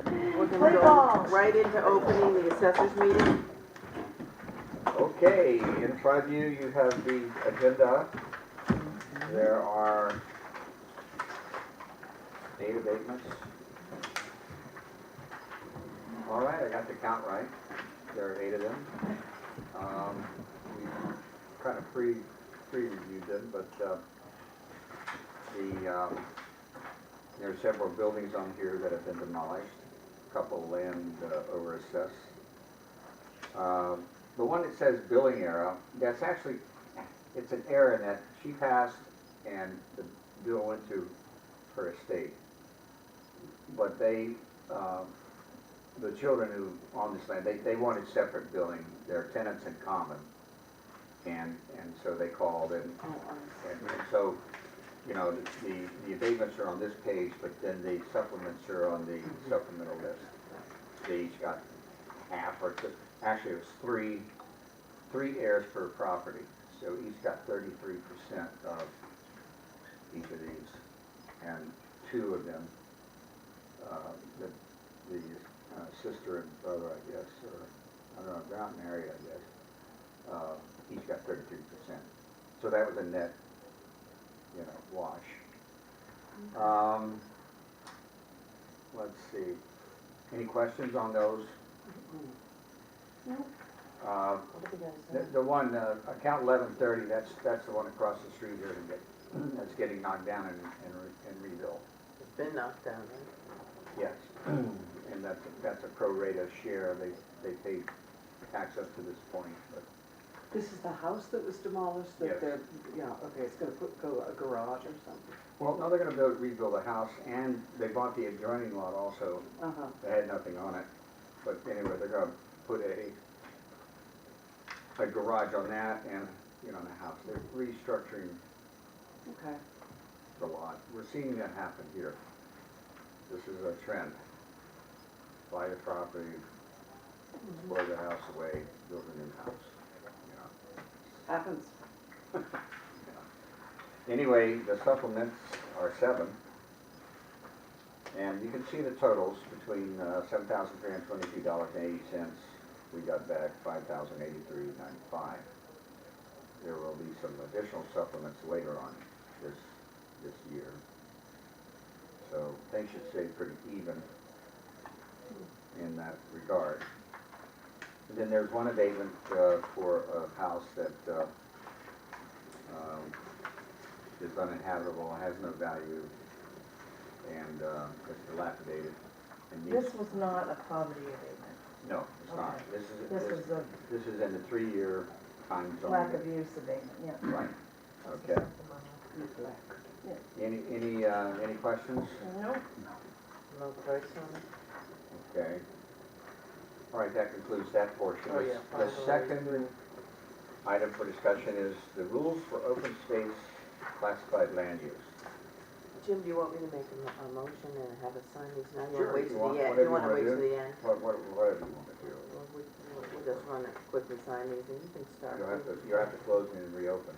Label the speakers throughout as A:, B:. A: Play
B: go
A: ball.
B: Right into opening the assessors meeting.
C: Okay, in front of you, you have the agenda. There are eight abatements. All right, I got the count right. There are eight of them. Um, We kind of pre, pre-reviewed them, but uh, the, um, there are several buildings on here that have been demolished, a couple land uh, over assessed. Um, the one that says billing error, that's actually, it's an error in that she passed and the bill went to her estate. But they, um, the children who own this land, they, they wanted separate billing, their tenants in common. And, and so they called and, and and so, you know, the- the, the abatements are on this page, but then the supplements are on the supplemental list. They each got half or two, actually it was three, three heirs per property. So each got thirty-three percent of each of these. And two of them, uh, the, the uh, sister and brother, I guess, or, I don't know, they're not married, I guess. Uh, each got thirty-three percent. So that was a net, you know, wash. Um, let's see. Any questions on those?
A: No.
C: Uh,
A: What do you
C: the,
A: guys think?
C: the one, uh, account eleven thirty, that's, that's the one across the street here that, that's getting knocked down and, and re- and rebuilt.
B: It's been knocked down, right?
C: Yes. And that's, that's a pro rata share, they, they paid tax up to this point, but
D: This is the house that was demolished,
C: Yes.
D: that they're, yeah, okay, it's gonna put, go a garage or something.
C: Well, now they're gonna build, rebuild the house, and they bought the adjoining lot also,
D: Uh-huh.
C: that had nothing on it. But anyway, they're gonna put a, a garage on that and, you know, and a house. They're restructuring
D: Okay.
C: the lot. We're seeing that happen here. This is a trend. Buy the property, blow the house away, build a new house, you know.
D: Happens.
C: Anyway, the supplements are seven. And you can see the totals between uh, seven thousand three hundred twenty-two dollars and eighty cents. We got back five thousand eighty-three ninety-five. There will be some additional supplements later on this, this year. So things should stay pretty even in that regard. And then there's one abatement uh, for a house that uh, um, is uninhabitable, has no value, and uh, it's dilapidated. and needs-
A: This was not a poverty abatement.
C: No, it's not.
A: Okay.
C: This is,
A: This
C: this,
A: was a
C: this is in the three-year time zone.
A: lack of use abatement, yeah.
C: Right, okay.
D: Neglect.
C: Any, any, uh, any questions?
A: Nope.
B: No price on it?
C: Okay. All right, that concludes that portion.
B: Oh, yeah,
C: The
B: final
C: second item for discussion is the rules for open space classified land use.
B: Jim, do you want me to make a, mo- a motion and have us sign these now? You
C: Sure,
B: wanna wait
C: if you
B: till
C: want-
B: the end?
C: whatever
B: You wanna wait
C: you wanna do.
B: till the end?
C: What, what, whatever you want to do.
B: Well, we, we'll- we'll just run it quick and sign these and you can start.
C: You'll have to, you'll have to close and reopen.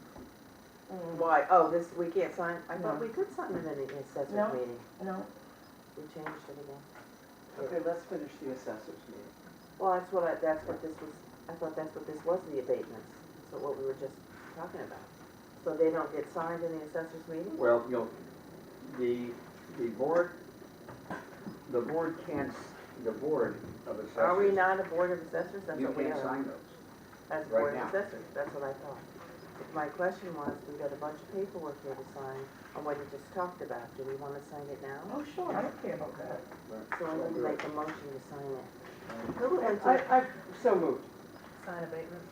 A: Mm,
B: Why, oh, this, we can't sign, I thought
A: No.
B: we could sign them in the assessors
A: No.
B: meeting.
A: No,
B: We changed it again.
D: Okay, let's finish the assessors meeting.
B: Well, that's what I, that's what this was, I thought that's what this was, the abatements, so what we were just talking about. So they don't get signed in the assessors meeting?
C: Well, you'll, the, the board, the board can't, s- the board of assessors.
B: Are we not a board of assessors? That's
C: You
B: what we
C: can't
B: are.
C: sign those.
B: As
C: right
B: board of
C: now.
B: assessors, that's what I thought. My question was, we got a bunch of paperwork here to sign on what you just talked about. Do we want to sign it now?
A: oh, sure, I don't care about that.
B: So I'm going to make a motion to sign it. Who would like
D: I, I,
B: to?
D: so moved.
A: Sign abatement?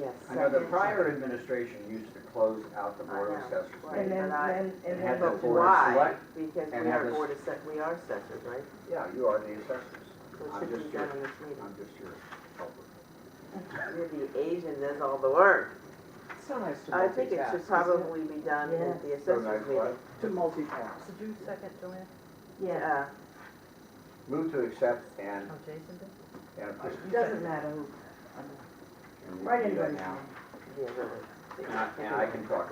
B: Yes.
C: I know the
B: second.
C: prior administration used to close out the
B: I
C: board of
B: know,
C: assessors.
B: right.
C: meeting.
A: And then,
B: And I-
A: then,
C: and
A: and
C: had
A: then,
C: the
A: but
B: But
C: board
B: why?
C: select
B: Because we
C: and have
B: are
C: us-
B: board assess, we are assessors, right?
C: Yeah, you are the assessors.
B: So
C: I'm
B: it should
C: just
B: be done
C: your-
B: in this meeting.
C: I'm just your helper.
B: You're the agent, that's all the work.
D: It's so nice to multitask.
B: I think it should
D: isn't
B: probably be done
A: Yeah.
B: at the
C: So
B: assessors
C: nice, what?
B: meeting.
D: To multitask.
E: Did you second, Joanne?
A: yeah,
B: Yeah,
C: Move to accept and,
E: Oh, Jason did?
C: and approve.
A: it doesn't matter who,
C: And you
A: right
C: can do that
A: anybody's
C: now.
A: name.
B: yeah, really.
C: And I- And I can talk